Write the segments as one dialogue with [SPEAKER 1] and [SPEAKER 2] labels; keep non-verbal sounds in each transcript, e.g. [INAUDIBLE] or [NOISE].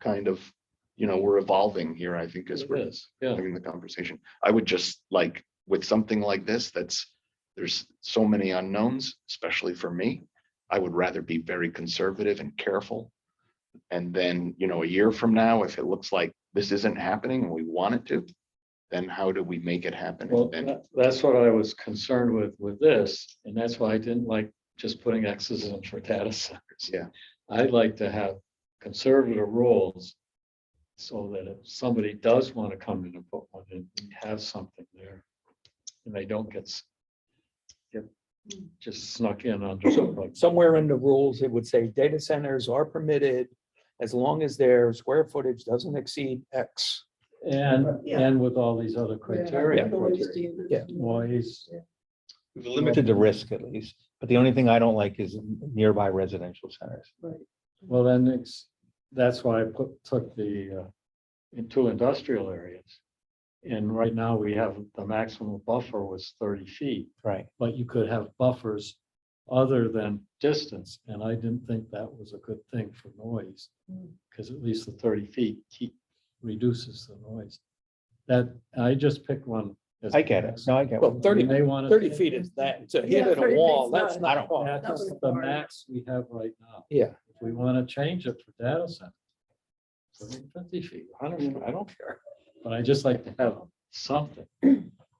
[SPEAKER 1] kind of, you know, we're evolving here, I think, as
[SPEAKER 2] It
[SPEAKER 1] we're
[SPEAKER 2] is, yeah.
[SPEAKER 1] having the conversation. I would just like, with something like this, that's, there's so many unknowns, especially for me. I would rather be very conservative and careful. And then, you know, a year from now, if it looks like this isn't happening, and we want it to, then how do we make it happen?
[SPEAKER 2] Well, uh,
[SPEAKER 1] And then-
[SPEAKER 2] that- that's what I was concerned with, with this, and that's why I didn't like just putting X's in for data centers.
[SPEAKER 1] Yeah.
[SPEAKER 2] I'd like to have conservative rules so that if somebody does want to come in and put one in, we have something there. And they don't get s- get just snuck in under the rug.
[SPEAKER 3] Somewhere in the rules, it would say data centers are permitted as long as their square footage doesn't exceed X.
[SPEAKER 2] And,
[SPEAKER 4] Yeah.
[SPEAKER 2] and with all these other criteria.
[SPEAKER 3] Yeah.
[SPEAKER 2] Noise,
[SPEAKER 5] We've limited the risk at least, but the only thing I don't like is nearby residential centers.
[SPEAKER 2] well, then it's, that's why I put, took the, uh, into industrial areas. And right now we have the maximum buffer was thirty feet,
[SPEAKER 5] Right.
[SPEAKER 2] but you could have buffers other than distance, and I didn't think that was a good thing for noise.
[SPEAKER 4] Hmm.
[SPEAKER 2] Because at least the thirty feet keep, reduces the noise. That, I just picked one. as
[SPEAKER 5] I get it.
[SPEAKER 2] the
[SPEAKER 5] No, I get
[SPEAKER 3] Well,
[SPEAKER 5] it.
[SPEAKER 2] max. You
[SPEAKER 3] thirty
[SPEAKER 2] may want to.
[SPEAKER 3] Thirty feet is that, to hit
[SPEAKER 4] Yeah,
[SPEAKER 3] at a
[SPEAKER 4] 30
[SPEAKER 3] wall,
[SPEAKER 4] feet's
[SPEAKER 3] that's
[SPEAKER 4] not-
[SPEAKER 3] not far.
[SPEAKER 2] That's
[SPEAKER 4] That was
[SPEAKER 2] the
[SPEAKER 4] hard.
[SPEAKER 2] max we have right now.
[SPEAKER 3] Yeah.
[SPEAKER 2] If we want to change it for data center. so make Fifty feet, hundred feet, I don't care, but I just like to have something.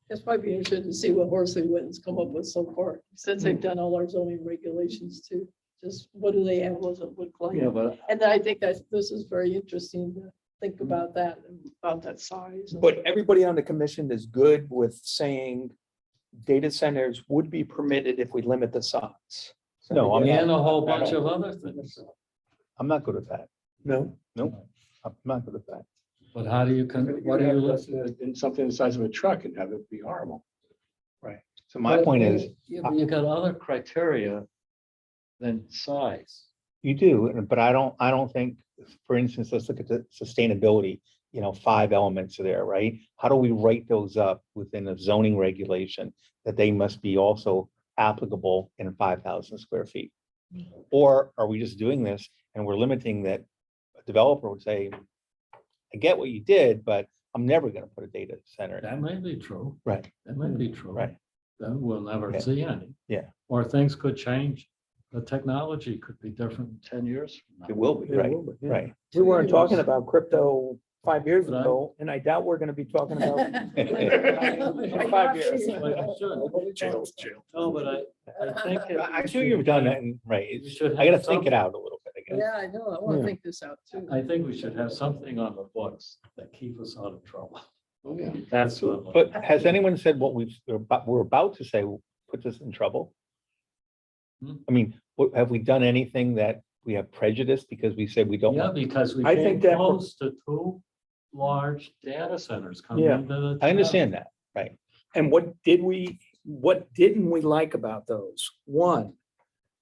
[SPEAKER 4] That's probably interesting to see what Horsley Witten's come up with so far, since
[SPEAKER 2] Mm.
[SPEAKER 4] they've done all our zoning regulations too. Just what do they have, what does it look
[SPEAKER 5] Oh,
[SPEAKER 4] like?
[SPEAKER 2] Yeah, but
[SPEAKER 4] And then I think that this is very interesting to
[SPEAKER 2] Mm.
[SPEAKER 4] think about that, and about that size. and- [LAUGHS]
[SPEAKER 3] But [LAUGHS] everybody on the commission is good with saying data centers would be permitted if we limit the size.
[SPEAKER 5] No, I'm
[SPEAKER 2] and
[SPEAKER 5] not,
[SPEAKER 2] a whole bunch of other things,
[SPEAKER 5] I'm not good at that.
[SPEAKER 3] No,
[SPEAKER 5] I'm not good at that.
[SPEAKER 2] but how do you, con- what do you look?
[SPEAKER 1] In uh, something the size of a truck and have it be horrible.
[SPEAKER 5] So [LAUGHS] my point is,
[SPEAKER 2] You you got other criteria than size.
[SPEAKER 5] you do, and- but I don't, I don't think, for instance, let's look at the sustainability, you know, five elements there, right? How do we write those up within a zoning regulation that they must be also applicable in five thousand square feet? Or are we just doing this and we're limiting that a developer would say, I get what you did, but I'm never gonna put a data center. in."
[SPEAKER 2] That might be true.
[SPEAKER 5] Right.
[SPEAKER 2] That might be true.
[SPEAKER 5] Right.
[SPEAKER 2] Then we'll never
[SPEAKER 5] Yeah.
[SPEAKER 2] see any.
[SPEAKER 5] Yeah.
[SPEAKER 2] Or things could change. The technology could be different in ten years. from
[SPEAKER 5] It
[SPEAKER 2] now.
[SPEAKER 5] will be, right, right.
[SPEAKER 3] we weren't talking about crypto five years
[SPEAKER 2] Right.
[SPEAKER 3] ago, and I doubt we're gonna be talking about.
[SPEAKER 4] [LAUGHS] Like,
[SPEAKER 3] Five years.
[SPEAKER 2] Like it should.
[SPEAKER 4] [LAUGHS]
[SPEAKER 2] No, but I, I
[SPEAKER 5] [LAUGHS]
[SPEAKER 2] think. it-
[SPEAKER 5] I'm sure you've done that, and, right,
[SPEAKER 2] we
[SPEAKER 5] it's-
[SPEAKER 2] should
[SPEAKER 5] I
[SPEAKER 2] have
[SPEAKER 5] gotta think
[SPEAKER 2] something.
[SPEAKER 5] it out a little bit, I guess.
[SPEAKER 4] Yeah, I know, I want
[SPEAKER 3] Yeah.
[SPEAKER 4] to think this out too.
[SPEAKER 2] I think we should have something on the books that keep us out of trouble.
[SPEAKER 1] Oh, yeah.
[SPEAKER 2] That's what.
[SPEAKER 5] But has anyone said what we've, we're about, we're about to say puts us in trouble?
[SPEAKER 2] Hmm.
[SPEAKER 5] I mean, what, have we done anything that we have prejudice because we said we don't
[SPEAKER 2] Yeah,
[SPEAKER 5] want?
[SPEAKER 2] because we
[SPEAKER 3] I
[SPEAKER 2] came
[SPEAKER 3] think that-
[SPEAKER 2] close to two large data centers coming
[SPEAKER 3] Yeah.
[SPEAKER 2] into the.
[SPEAKER 5] I understand that.
[SPEAKER 3] And what did we, what didn't we like about those? One,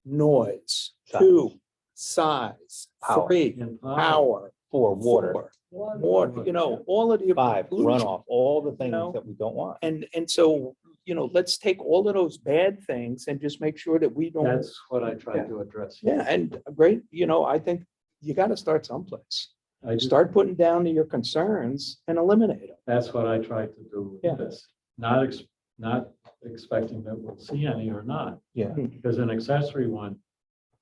[SPEAKER 3] noise,
[SPEAKER 5] Size.
[SPEAKER 3] two, size,
[SPEAKER 5] Power.
[SPEAKER 3] three,
[SPEAKER 2] town. And
[SPEAKER 3] power,
[SPEAKER 5] For water,
[SPEAKER 3] four, water, you know, all of the.
[SPEAKER 5] five,
[SPEAKER 3] pollution.
[SPEAKER 5] runoff, all the things
[SPEAKER 3] know?
[SPEAKER 5] that we don't want.
[SPEAKER 3] And, and so, you know, let's take all of those bad things and just make sure that we don't.
[SPEAKER 2] That's what I tried to address.
[SPEAKER 3] Yeah, and great, you know, I think you gotta start someplace.
[SPEAKER 2] I just-
[SPEAKER 3] Start putting down your concerns and eliminate them.
[SPEAKER 2] That's what I tried to do
[SPEAKER 3] Yeah.
[SPEAKER 2] with this, not, ex- not expecting that we'll see any or not. Hmm.
[SPEAKER 5] Yeah.
[SPEAKER 2] Because an accessory one,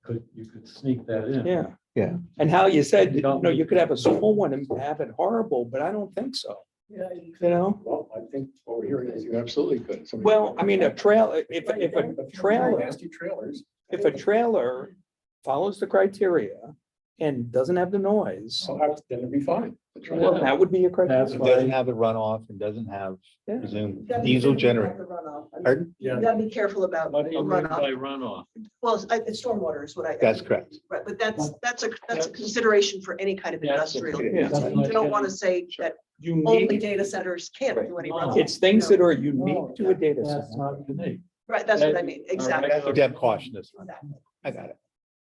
[SPEAKER 2] could, you could sneak that in.
[SPEAKER 3] Yeah.
[SPEAKER 5] Yeah.
[SPEAKER 3] And how you said,
[SPEAKER 2] You
[SPEAKER 3] you
[SPEAKER 2] don't
[SPEAKER 3] know,
[SPEAKER 2] need-
[SPEAKER 3] you could have a small one and have it horrible, but I don't think so,
[SPEAKER 4] Yeah,
[SPEAKER 3] you know?
[SPEAKER 1] Well, I think what we're hearing is you absolutely could. Somebody-
[SPEAKER 3] Well, I mean, a trail, if,
[SPEAKER 4] Right,
[SPEAKER 3] if
[SPEAKER 4] right.
[SPEAKER 3] a trailer,
[SPEAKER 1] Nasty trailers.
[SPEAKER 3] if a trailer follows the criteria and doesn't have the noise,
[SPEAKER 1] So how, then it'd be fine.
[SPEAKER 3] well, that would be a
[SPEAKER 2] Oh, That's
[SPEAKER 3] criteria.
[SPEAKER 2] why-
[SPEAKER 5] Doesn't have a runoff and doesn't have
[SPEAKER 3] Yeah.
[SPEAKER 5] presumed
[SPEAKER 6] Gotta be careful
[SPEAKER 5] diesel
[SPEAKER 6] about
[SPEAKER 5] generator.
[SPEAKER 6] the runoff. I mean,
[SPEAKER 5] Pardon?
[SPEAKER 6] You gotta be careful about
[SPEAKER 2] What do you mean by
[SPEAKER 6] runoff.
[SPEAKER 2] runoff?
[SPEAKER 6] Well, it's- I- it's stormwater is what I.
[SPEAKER 5] That's correct.
[SPEAKER 6] Right, but that's, that's a, that's a consideration for any kind of
[SPEAKER 2] Yeah, that's
[SPEAKER 6] industrial.
[SPEAKER 1] okay.
[SPEAKER 6] use.
[SPEAKER 2] Yeah.
[SPEAKER 6] You don't want to say that
[SPEAKER 3] You
[SPEAKER 6] only
[SPEAKER 3] need,
[SPEAKER 6] data centers can't do any
[SPEAKER 2] Right.
[SPEAKER 6] runoff.
[SPEAKER 3] it's things that are
[SPEAKER 2] No,
[SPEAKER 3] unique to a data
[SPEAKER 2] That's
[SPEAKER 3] center.
[SPEAKER 2] not unique.
[SPEAKER 6] Right, that's what I
[SPEAKER 2] that-
[SPEAKER 6] mean,
[SPEAKER 2] All right.
[SPEAKER 6] exactly.
[SPEAKER 5] Deb cautioned us.
[SPEAKER 6] Exactly.
[SPEAKER 5] I got it.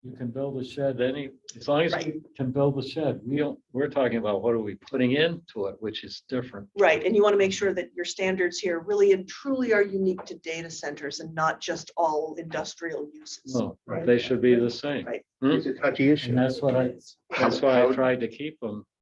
[SPEAKER 2] you can build a shed any, as long as
[SPEAKER 6] Right.
[SPEAKER 2] you can build a shed, we don't, we're talking about what are we putting into it, which is different.
[SPEAKER 6] Right, and you want to make sure that your standards here really and truly are unique to data centers and not just all industrial uses.
[SPEAKER 2] No, they should be the same.
[SPEAKER 6] Right.
[SPEAKER 2] Hmm?
[SPEAKER 5] It's a touchy issue.
[SPEAKER 2] And that's what I, that's why I tried to keep them